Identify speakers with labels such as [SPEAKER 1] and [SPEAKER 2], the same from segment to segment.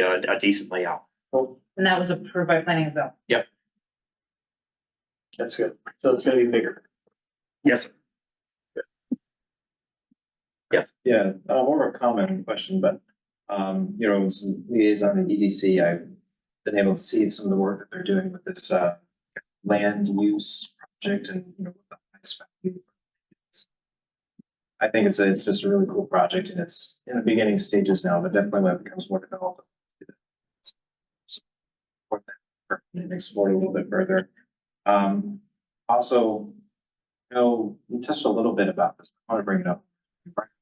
[SPEAKER 1] a a decent layout.
[SPEAKER 2] And that was approved by planning as well.
[SPEAKER 3] That's good. So it's gonna be bigger.
[SPEAKER 1] Yes, sir.
[SPEAKER 4] Yeah, uh, more of a comment and question, but, um, you know, as liaison to EDC, I've been able to see some of the work that they're doing with this, uh, land use project and, you know, what the high spec is. I think it's, a- it's just a really cool project and it's in the beginning stages now, but definitely when it becomes more developed. support that And explore it a little bit further. Um, also, you know, we touched a little bit about this, I want to bring it up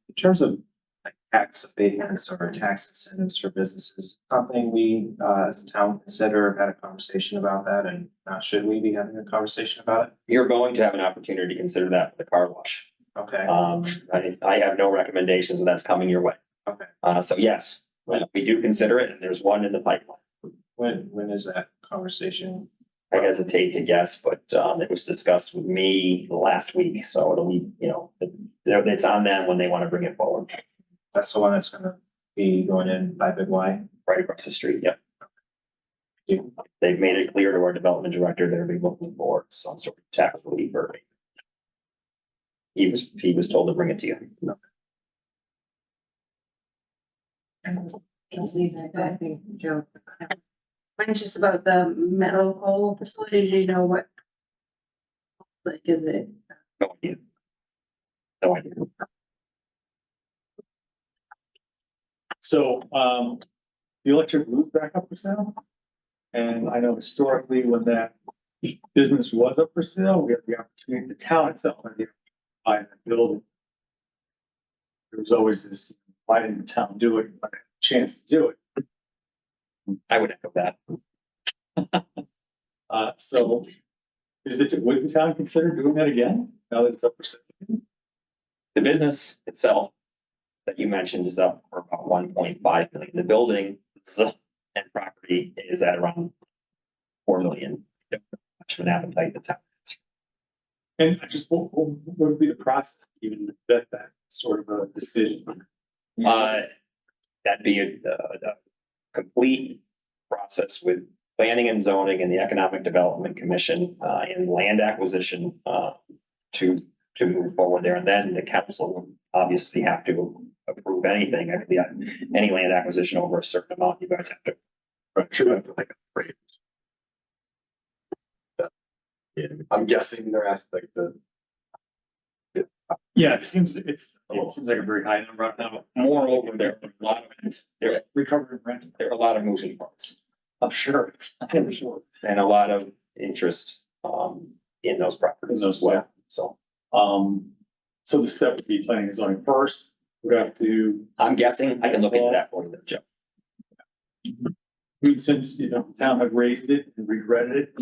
[SPEAKER 4] in terms of like tax abatements or tax incentives for businesses, something we uh as a town consider, have had a conversation about that and uh should we be having a conversation about it?
[SPEAKER 5] You're going to have an opportunity to consider that for the car wash.
[SPEAKER 4] Okay,
[SPEAKER 5] Um, I, I have no recommendations, and that's coming your way.
[SPEAKER 4] Okay.
[SPEAKER 5] Uh, so yes, we we do consider it, and there's one in the pipeline.
[SPEAKER 4] when when is that conversation?
[SPEAKER 5] I hesitate to guess, but, um, it was discussed with me last week, so it'll be, you know, it- it's on them when they want to bring it forward,
[SPEAKER 4] That's the one that's gonna be going in by Big Y.
[SPEAKER 5] right across the street, yep.
[SPEAKER 4] Yeah.
[SPEAKER 5] They've made it clear to our development director, they're be looking for some sort of tax relief or. He was, he was told to bring it to you.
[SPEAKER 2] I think Joe.
[SPEAKER 6] Mine's just about the medical facility, do you know what? Like, is it,
[SPEAKER 5] No idea. No idea.
[SPEAKER 3] So, um, the electric loop back up for sale. And I know historically when that business was up for sale, we had the opportunity, the town itself, had the buy the building. There was always this, why didn't the town do it? Why didn't the Chance to do it.
[SPEAKER 5] I would echo that.
[SPEAKER 3] Uh, so is it, would the town consider doing that again now that it's up for sale?
[SPEAKER 5] The business itself that you mentioned is up for about one point five million. The building is up and property is at around four million. Don't have Much of an appetite to tell.
[SPEAKER 3] And I just, what, what what would be the process to even vet that sort of a decision?
[SPEAKER 5] Uh, that'd be a, a- a complete process with planning and zoning and the Economic Development Commission, uh, and land acquisition, uh, to, to move forward there. And then the council would obviously have to approve anything, I mean, yeah, any land acquisition over a certain amount, you guys have to.
[SPEAKER 7] Sure. I'm guessing they're asked like the.
[SPEAKER 3] Yeah, it seems, it's, it seems like a very high number. I don't know.
[SPEAKER 5] Moreover, there are a lot of, there are
[SPEAKER 3] Recovering rent,
[SPEAKER 5] there are a lot of moving parts
[SPEAKER 3] I'm sure, I'm sure.
[SPEAKER 5] and a lot of interest, um, in those properties as well, so.
[SPEAKER 3] Um, so the step would be planning and zoning first, would have to,
[SPEAKER 5] I'm guessing I can look into that for you, Joe.
[SPEAKER 3] I mean, since, you know, the town had raised it and regretted it.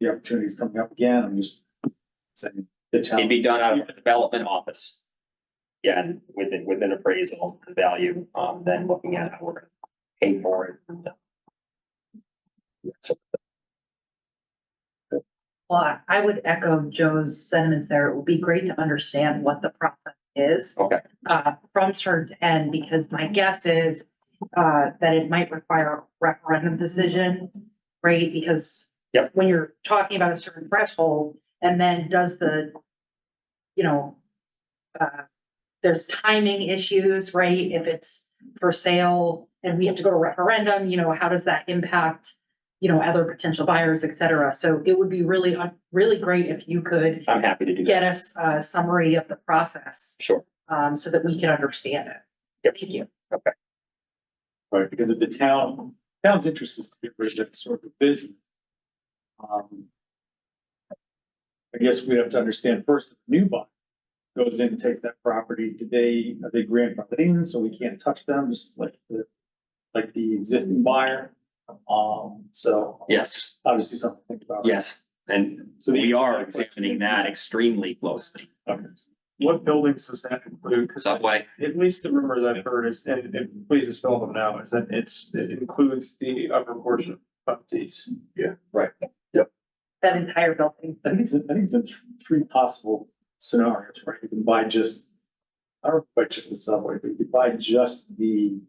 [SPEAKER 3] The opportunity is coming up again, I'm just saying the
[SPEAKER 5] It'd
[SPEAKER 3] town,
[SPEAKER 5] be done out of the development office. Yeah, and within, within appraisal and value, um, then looking at how we're gonna pay for it. and, uh, yeah, So
[SPEAKER 2] Well, I- I would echo Joe's sentiments there. It would be great to understand what the process is.
[SPEAKER 5] Okay.
[SPEAKER 2] Uh, from start to end, because my guess is, uh, that it might require a referendum decision, right? Because
[SPEAKER 5] Yep.
[SPEAKER 2] when you're talking about a certain threshold, and then does the, you know, uh, there's timing issues, right? If it's for sale and we have to go to referendum, you know, how does that impact, you know, other potential buyers, et cetera? So it would be really, uh, really great if you could
[SPEAKER 5] I'm happy to do that,
[SPEAKER 2] get us a summary of the process,
[SPEAKER 5] sure.
[SPEAKER 2] um, so that we can understand it.
[SPEAKER 5] Yep.
[SPEAKER 2] Thank you.
[SPEAKER 3] right, because if the town, town's interest is to get rid of that sort of vision. Um. I guess we have to understand first, if the new buyer goes in, and takes that property, do they, are they grandfathered in, so we can't touch them, just like the, like the existing buyer? Um, so.
[SPEAKER 5] Yes,
[SPEAKER 3] Obviously something to think about.
[SPEAKER 5] yes, and
[SPEAKER 3] So the-
[SPEAKER 5] we are examining that extremely closely.
[SPEAKER 8] What buildings does that include? 'Cause
[SPEAKER 5] Subway,
[SPEAKER 8] at least the rumors I've heard is, and, and please dispel them now, is that it's, it includes the upper portion of these.
[SPEAKER 2] That entire building.
[SPEAKER 3] I think it's, I think it's a th- three possible scenarios, right? You can buy just, I don't know, if buy just the subway, but you could buy just the